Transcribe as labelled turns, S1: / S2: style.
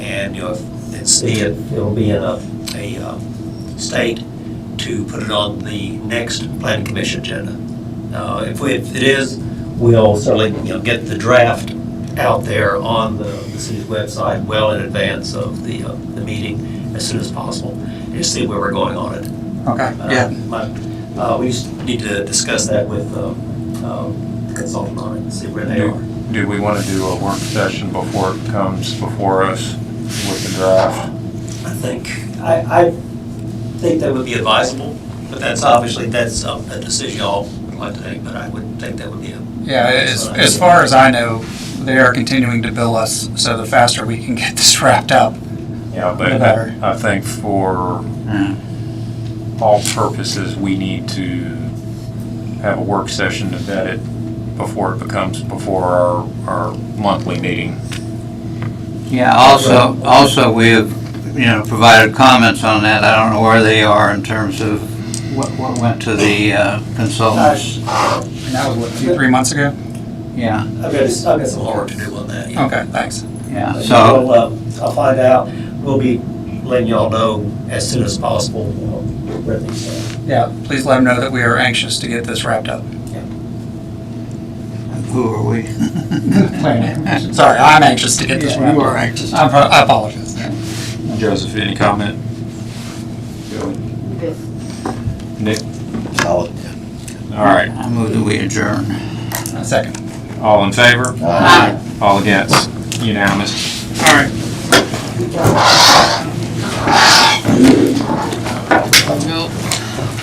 S1: and you'll, and see it, it'll be in a, a, um, state to put it on the next planning commission agenda. Uh, if we, if it is, we'll certainly, you know, get the draft out there on the, the city's website well in advance of the, uh, the meeting as soon as possible, and just see where we're going on it.
S2: Okay,
S1: Uh,
S2: yeah,
S1: my- uh, we just need to discuss that with, um, um, the consultant on it, and see where they
S3: Do-
S1: are.
S3: Do we want to do a work session before it comes before us with the draft?
S1: I think, I, I think that would be advisable, but that's obviously, that's um, a decision y'all would like to take, but I would think that would be a.
S2: yeah, as, as far as I know, they are continuing to bill us, so the faster we can get this wrapped up.
S3: Yeah, but
S2: The better.
S3: I think for all purposes, we need to have a work session to vet it before it becomes, before our, our monthly meeting.
S4: Yeah, also, also, we have, you know, provided comments on that. I don't know where they are in terms of what, what went to the uh, consultants.
S2: And that was what, two, three months ago?
S4: Yeah,
S1: I've got, I've got some homework to do on that. yeah.
S2: Okay, thanks.
S4: yeah,
S1: But
S4: so,
S1: we'll, uh, I'll find out, we'll be letting y'all know as soon as possible. uh, where these are.
S2: Yeah, please let them know that we are anxious to get this wrapped up.
S4: who are we?
S2: Sorry, I'm anxious to get this
S4: Yeah,
S2: wrapped
S4: you
S2: up.
S4: are anxious.
S2: I apo- I apologize.
S3: Joseph, any comment? Nick?
S5: Solid.
S3: All right,
S4: I move that we adjourn.
S2: A second.
S3: all in favor?
S4: Aye.
S3: All against? Unanimous?
S2: All right.
S4: Nope.